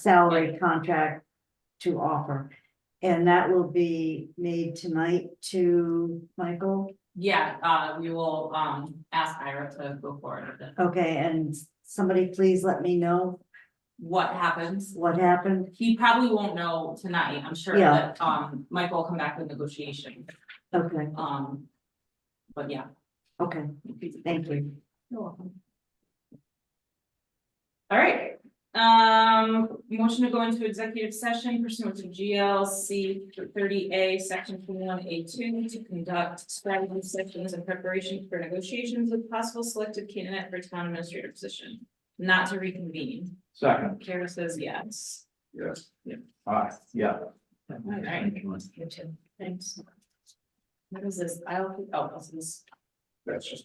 salary contract to offer. And that will be made tonight to Michael, Yeah, uh, we will, um, ask Ira to go forward with it. okay, and somebody please let me know What happens? what happened, He probably won't know tonight. I'm sure Yeah. that, um, Michael will come back with negotiation, okay, um. But yeah. okay, thank you. You're welcome. All right, um, motion to go into executive session pursuant to GLC thirty A, section twenty-one A two. To conduct strategy sessions in preparation for negotiations with possible selected candidate for town administrator position. Not to reconvene, Second, Kara says yes. yes. Yeah. Aye, yeah. right. You too. Thanks. What is this? I'll, oh, this is. That's just